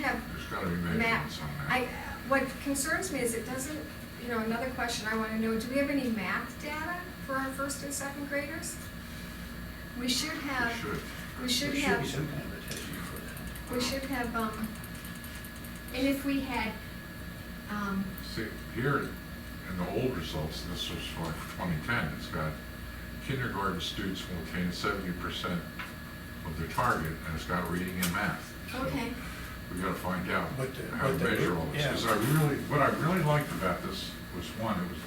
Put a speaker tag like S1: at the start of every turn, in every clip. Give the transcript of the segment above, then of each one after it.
S1: gotta be
S2: map.
S1: measurements on that.
S2: I, what concerns me is it doesn't, you know, another question I wanna know, do we have any math data for our first and second graders? We should
S1: We
S2: have,
S1: should.
S2: we should
S3: There
S2: have.
S3: be some kind of a test for that.
S2: We should have, um, and if we had, um,
S1: See, here, in the old results, this was for twenty ten, it's got kindergarten students will attain seventy percent of their target, and it's got reading and math. So
S2: okay,
S1: We gotta find out
S3: What the-
S1: how to
S3: what the-
S1: measure all this,
S3: yeah.
S1: because I really, what I really liked about this was, one, it was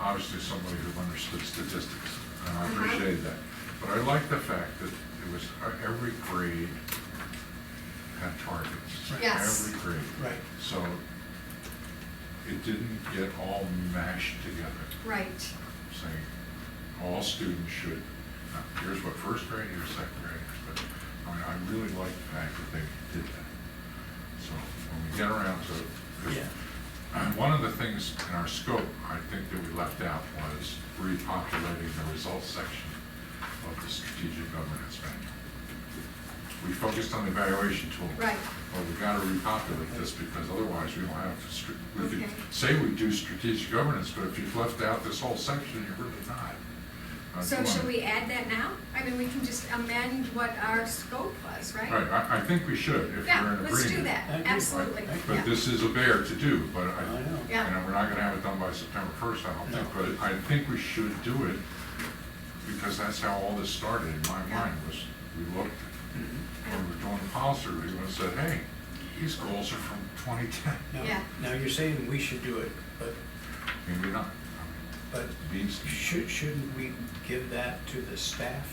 S1: obviously somebody who understood statistics, and I
S2: Uh-huh.
S1: appreciated that. But I liked the fact that it was, uh, every grade had targets.
S3: Right.
S2: Yes.
S1: Every grade.
S3: Right.
S1: So it didn't get all mashed together,
S2: right,
S1: saying all students should, now, here's what first grade, here's second graders, but I mean, I really like the fact that they did that. So when we get around to, 'cause
S3: Yeah.
S1: and One of the things in our scope, I think that we left out was repopulating the results section of the strategic governance manual. We focused on the evaluation tool.
S2: Right.
S1: But we gotta repopulate this because otherwise we don't have, to str- we could
S2: Okay.
S1: say we do strategic governance, but if you've left out this whole section, you're really not. uh,
S2: so
S1: doing
S2: should
S1: it.
S2: we add that now? I mean, we can just amend what our scope was, right?
S1: Right, I, I think we should, if you're in
S2: Yeah,
S1: agreement.
S2: let's do that,
S3: I agree.
S2: absolutely,
S3: I agree.
S2: yeah,
S1: But this is a bear to do, but
S3: I
S1: I,
S3: know.
S1: You
S2: Yeah.
S1: know, we're not gonna have it done by September first, I don't think,
S3: No.
S1: but I think we should do it, because that's how all this started in my
S2: Yeah.
S1: mind, was we looked,
S3: Mhm.
S1: when we were doing the policy review, and said, hey, these goals are from twenty ten.
S3: Now,
S2: Yeah.
S3: now you're saying we should do it, but,
S1: Maybe not.
S3: but
S1: These-
S3: should, shouldn't we give that to the staff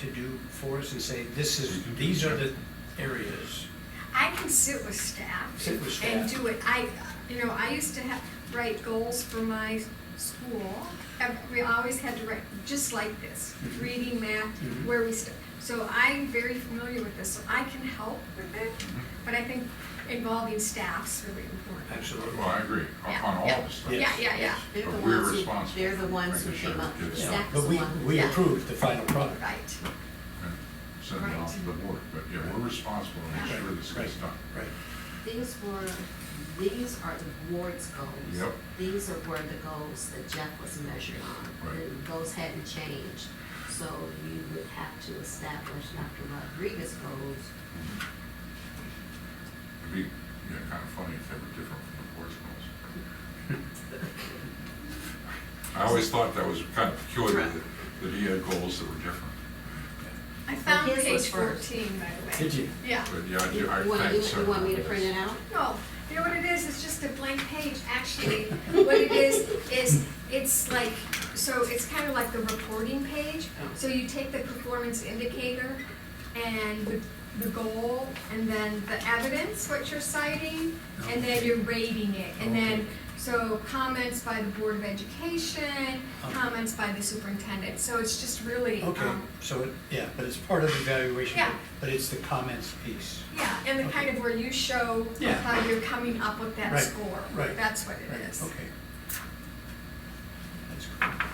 S3: to do for us and say, this is, these are the areas?
S2: I can sit with staff.
S3: Sit with
S2: And
S3: staff.
S2: do it, I, you know, I used to have, write goals for my school, Ev- we always had to write, just like this,
S3: Mhm.
S2: reading, math,
S3: Mhm.
S2: where we st- so I'm very familiar with this, so I can help with it,
S3: Mm-hmm.
S2: but I think involving staff's really important.
S3: Absolutely.
S1: Well, I agree,
S2: Yeah,
S1: on all
S2: yeah.
S1: this stuff.
S2: Yeah, yeah, yeah,
S4: They're the
S1: But we're
S4: ones who-
S1: responsible
S4: They're the
S1: for
S4: ones who
S1: making sure
S4: came
S1: it
S4: up with
S1: gets
S3: Yeah,
S4: Zach's
S3: But we,
S4: one.
S3: we
S4: Yeah.
S3: approved the final product.
S2: right,
S1: and Send it
S2: Right.
S1: off to the board, but yeah, we're responsible to make
S3: Right,
S1: sure this gets
S3: right,
S1: done.
S3: Right,
S4: These were, these are the board's goals.
S1: Yep.
S4: These are were the goals that Jeff was measuring on.
S1: Right.
S4: The goals hadn't changed, so you would have to establish Dr. Rodriguez's goals.
S1: Mm-hmm. It'd be, yeah, kinda funny if they were different from the board's goals. I always thought that was kind of peculiar, that that he had goals that were different.
S2: I found
S4: his was
S2: page
S4: first.
S2: fourteen, by the way.
S3: Did you?
S2: Yeah,
S1: But yeah, I
S4: You
S1: do, I.
S4: want,
S1: thank
S4: you- you want me to
S1: Senator
S4: print it out?
S2: no, you know what it is, it's just a blank page, actually, what it is, is, it's like, so it's kind of like the reporting page, so you take the performance indicator and the, the goal, and then the evidence, what you're citing, and then you're rating it, and then, so comments by the Board of Education,
S3: Okay.
S2: comments by the superintendent, so it's just really,
S3: okay,
S2: um,
S3: so, it yeah, but it's part of the evaluation.
S2: Yeah.
S3: But it's the comments piece.
S2: Yeah, and the kind of where you show
S3: Yeah.
S2: how you're coming up with that
S3: Right,
S2: score.
S3: right,
S2: That's what
S3: Right,
S2: it is.
S3: Okay. That's cool.
S1: Davis.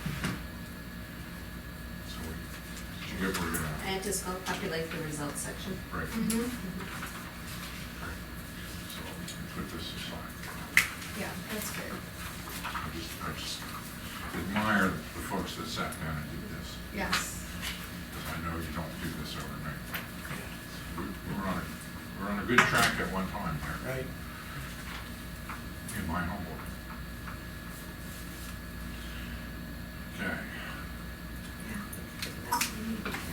S1: So we, did you get where you're at?
S4: And Mm-hmm. just go populate the results section.
S1: Right, right.
S2: Mhm,
S1: So we can put this aside.
S2: yeah, that's good,
S1: I just, I just admire the folks that sat down and did this,
S2: yes.
S1: because I know you don't do this overnight.
S3: Yeah,
S1: We- We're on, a- we're on a good track at one time here,
S3: Right,
S1: in my humble. Okay. We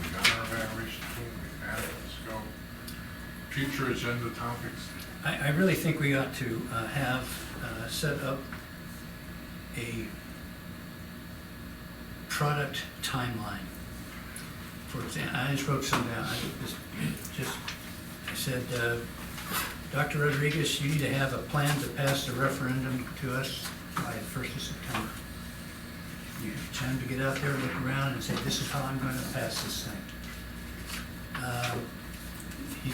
S1: got our evaluation tool, we got it, let's go. Future agenda topics,
S5: I, I really think we ought to uh, have uh, set up a product timeline. For example, I just wrote some down, I just, just I said, uh, Dr. Rodriguez, you need to have a plan to pass the referendum to us by the first of September. You have time to get out there, look around and say, this is how I'm gonna pass this thing. Uh, he-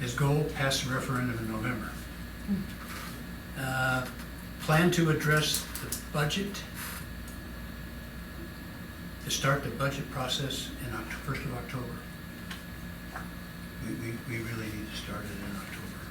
S5: his goal, pass the referendum in November. Uh, Plan to address the budget, to start the budget process in October, first of October. We, we, we really need to start it in October.